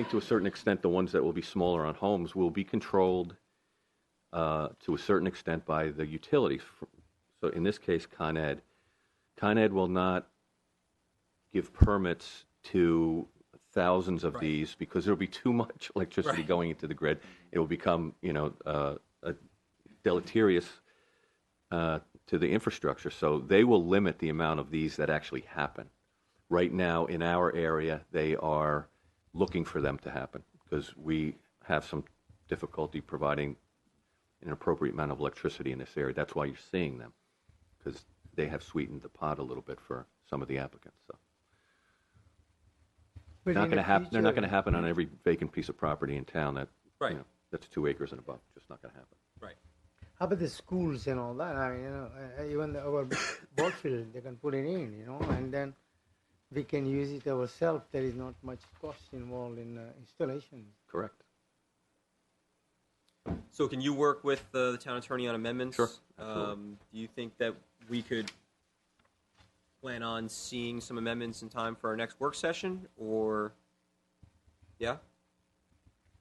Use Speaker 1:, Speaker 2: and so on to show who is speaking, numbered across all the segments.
Speaker 1: think to a certain extent, the ones that will be smaller on homes will be controlled uh, to a certain extent by the utilities. So in this case, Con Ed. Con Ed will not give permits to thousands of these because there'll be too much electricity going into the grid. It will become, you know, uh, a deleterious uh, to the infrastructure. So they will limit the amount of these that actually happen. Right now, in our area, they are looking for them to happen because we have some difficulty providing an appropriate amount of electricity in this area. That's why you're seeing them because they have sweetened the pot a little bit for some of the applicants. So
Speaker 2: But
Speaker 1: not going
Speaker 2: in
Speaker 1: to
Speaker 2: the
Speaker 1: happen. They're not
Speaker 2: future-
Speaker 1: going to happen on every vacant piece of property in town that
Speaker 3: Right.
Speaker 1: you know, that's two acres and above. Just not going to happen.
Speaker 3: Right.
Speaker 2: How about the schools and all that? I mean, you know, uh, uh, even the, our ball field, they can put it in, you know, and then we can use it ourselves. There is not much cost involved in uh, installation.
Speaker 1: Correct.
Speaker 3: So can you work with uh, the town attorney on amendments?
Speaker 1: Sure, absolutely.
Speaker 3: Um, do you think that we could plan on seeing some amendments in time for our next work session or, yeah?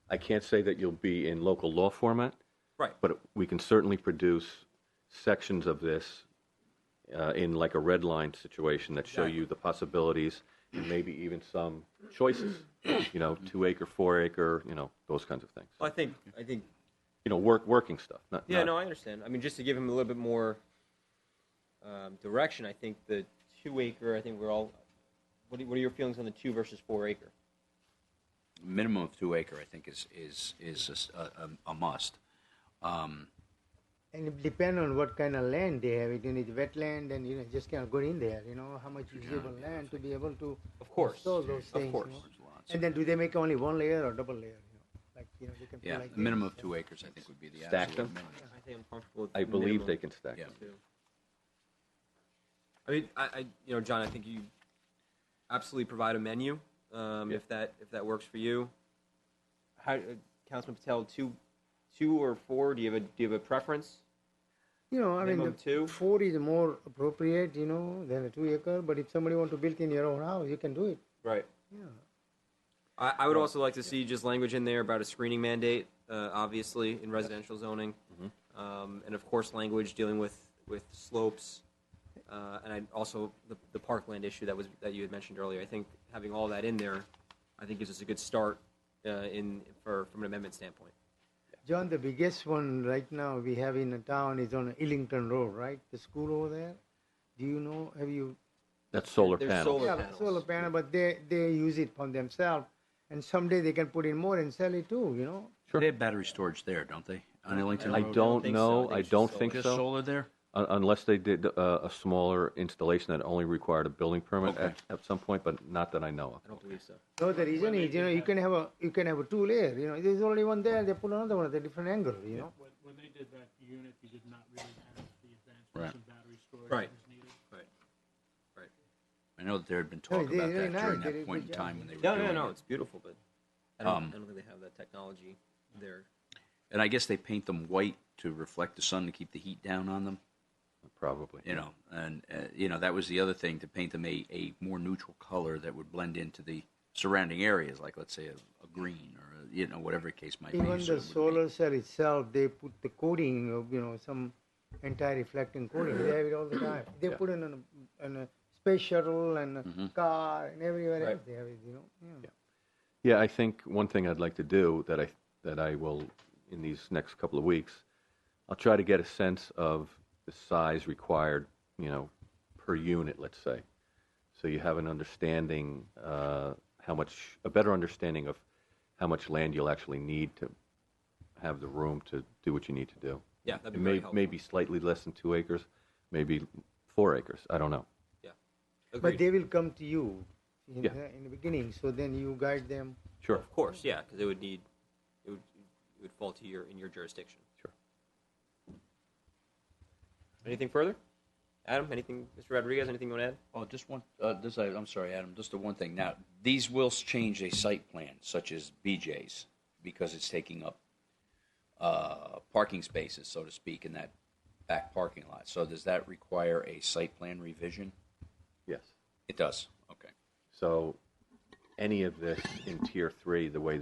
Speaker 1: I can't say that you'll be in local law format,
Speaker 3: Right.
Speaker 1: but we can certainly produce sections of this uh, in like a red line situation that show you the possibilities and maybe even some choices. You know, two acre, four acre, you know, those kinds of things.
Speaker 3: Well, I think, I think, uh,
Speaker 1: You know, work working stuff. Not,
Speaker 3: yeah,
Speaker 1: not-
Speaker 3: no, I understand. I mean, just to give him a little bit more um, direction, I think the two acre, I think we're all, what are, what are your feelings on the two versus four acre?
Speaker 4: minimum of two acre, I think, is is is a s- a, a- a must. Um,
Speaker 2: And it depends on what kind of land they have. It is wetland, and you know, just cannot go in there. You know, how much usable land to be able to
Speaker 3: Of course.
Speaker 2: install those
Speaker 3: Of
Speaker 2: things. you
Speaker 3: course.
Speaker 2: know?
Speaker 4: There's lots.
Speaker 2: And then, do they make only one layer or double layer? You know, like you know, they can put
Speaker 4: yeah,
Speaker 2: like
Speaker 4: the minimum
Speaker 2: this,
Speaker 4: of two acres, I think, would be the
Speaker 1: Stack
Speaker 4: absolute
Speaker 1: them?
Speaker 4: minimum.
Speaker 3: I think I'm comfortable with
Speaker 1: I believe
Speaker 3: minimum.
Speaker 1: they can stack.
Speaker 4: Yeah.
Speaker 1: them.
Speaker 3: too. I mean, I, I, you know, John, I think you absolutely provide a menu um,
Speaker 1: Yeah.
Speaker 3: if that if that works for you. How, uh, Councilman Patel, two, two or four? Do you have a do you have a preference?
Speaker 2: You know, I mean,
Speaker 3: Minimum
Speaker 2: the
Speaker 3: two?
Speaker 2: four is more appropriate, you know, than a two acre. But if somebody want to build in your own house, you can do it.
Speaker 3: Right.
Speaker 2: Yeah.
Speaker 3: I, I would also like to see just language in there about a screening mandate, uh, obviously in residential zoning, um, and of course language dealing with with slopes, uh, and I, also the, the parkland issue that was that you had mentioned earlier. I think having all that in there, I think gives us a good start uh, in for from an amendment standpoint.
Speaker 2: John, the biggest one right now we have in the town is on Illington Road, right? The school over there. Do you know? Have you?
Speaker 1: That's solar
Speaker 3: There's
Speaker 1: panels.
Speaker 3: solar-
Speaker 2: yeah,
Speaker 3: panels.
Speaker 2: solar panel, but they they use it for themselves, and someday they can put in more and sell it too. You know.
Speaker 4: They have battery storage there, don't they? On Ellington
Speaker 1: I
Speaker 4: Road?
Speaker 1: don't
Speaker 3: think so.
Speaker 1: know. I
Speaker 3: I think it's just
Speaker 1: don't
Speaker 3: solar.
Speaker 1: think
Speaker 4: Just
Speaker 1: so.
Speaker 4: solar there.
Speaker 1: Un- Unless they did uh, a smaller installation that only required a building permit
Speaker 4: Okay.
Speaker 1: at, at some point, but not that I know
Speaker 3: I don't believe so.
Speaker 2: No, the reason is you know you can have a you can have a two layer. You know, there's only one there. They put another one at a different angle. You know.
Speaker 5: When, when they did that unit, you did not really have the
Speaker 4: Right.
Speaker 5: advancements in battery storage
Speaker 3: Right.
Speaker 5: that was needed.
Speaker 3: Right. Right.
Speaker 4: I know that there had been talk
Speaker 2: they-
Speaker 4: about
Speaker 2: they're
Speaker 4: that during
Speaker 2: nice. They did a
Speaker 4: that point in
Speaker 2: good
Speaker 4: time
Speaker 2: job.
Speaker 4: when they were
Speaker 3: No, no,
Speaker 4: doing
Speaker 3: no.
Speaker 4: it.
Speaker 3: It's beautiful, but I don't,
Speaker 4: Um,
Speaker 3: I don't think they have that technology there.
Speaker 4: And I guess they paint them white to reflect the sun to keep the heat down on them.
Speaker 1: of. Probably.
Speaker 4: You know, and uh, you know that was the other thing to paint them a, a more neutral color that would blend into the surrounding areas, like let's say a, a green or a, you know whatever the case might be.
Speaker 2: Even
Speaker 4: so it
Speaker 2: the
Speaker 4: would be-
Speaker 2: solar cell itself, they put the coating of you know some anti-reflecting coating. They have it all the time. They
Speaker 1: Yeah.
Speaker 2: put it on a, on a space shuttle and a car and everywhere
Speaker 3: Right.
Speaker 2: else. They have it. You know. Yeah.
Speaker 1: Yeah, I think one thing I'd like to do that I that I will in these next couple of weeks, I'll try to get a sense of the size required, you know, per unit, let's say, so you have an understanding uh, how much a better understanding of how much land you'll actually need to have the room to do what you need to do.
Speaker 3: Yeah, that'd
Speaker 1: It
Speaker 3: be
Speaker 1: may,
Speaker 3: very helpful.
Speaker 1: Maybe slightly less than two acres, maybe four acres. I don't know.
Speaker 3: Yeah. Agreed.
Speaker 2: But they will come to you in,
Speaker 1: Yeah.
Speaker 2: the, in the beginning. So then you guide them.
Speaker 1: Sure.
Speaker 3: Of course, yeah, because it would need, it would, it would fall to your, in your jurisdiction.
Speaker 1: Sure.
Speaker 3: Anything further? Adam, anything, Mr. Rodriguez, anything you want to add?
Speaker 4: Oh, just one. Uh, this I, I'm sorry, Adam. Just the one thing. Now, these will change a site plan, such as BJ's, because it's taking up uh, parking spaces, so to speak, in that back parking lot. So, does that require a site plan revision?
Speaker 1: Yes.
Speaker 4: It does. Okay.
Speaker 1: So any of this in tier three the way